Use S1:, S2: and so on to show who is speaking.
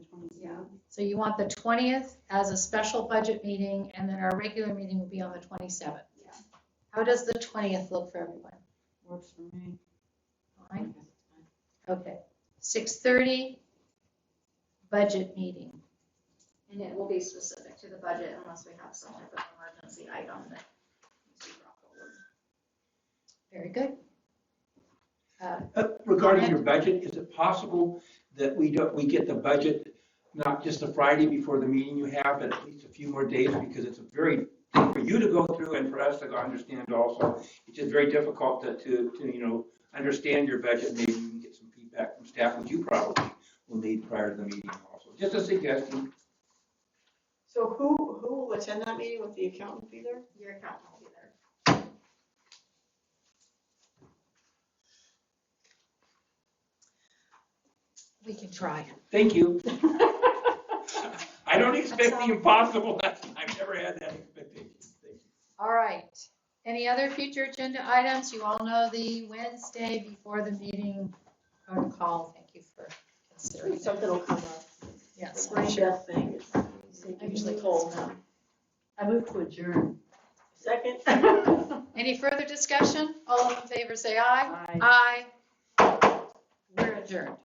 S1: So you want the 20th as a special budget meeting, and then our regular meeting will be on the 27th.
S2: Yeah.
S1: How does the 20th look for everyone?
S2: Works for me.
S1: All right, okay. 6:30, budget meeting.
S3: And it will be specific to the budget unless we have some type of emergency item that needs to be brought forward.
S1: Very good. Uh,
S4: Uh, Regarding your budget, is it possible that we don't, we get the budget not just the Friday before the meeting you have, but at least a few more days? Because it's a very, for you to go through and for us to understand also, it's just very difficult to, to, to, you know, understand your budget. Maybe you can get some feedback from staff, which you probably will need prior to the meeting also. Just a suggestion.
S5: So who, who will attend that meeting? Will the accountant be there?
S3: Your accountant will be there.
S1: We can try.
S4: Thank you. I don't
S1: That's
S4: expect the
S1: all.
S4: impossible. That's, I've never had that expectation. Thank you.
S1: All right. Any other future agenda items? You all know the Wednesday before the meeting protocol. Thank you for considering. that.
S5: Something will come up.
S1: Yes,
S5: Brain death thing. It's
S1: I
S5: taking
S1: usually
S5: me
S1: call
S5: cold.
S1: now.
S2: I move to adjourn.
S5: Second?
S1: Any further discussion? All in favor, say aye.
S2: Aye.
S1: Aye. We're adjourned.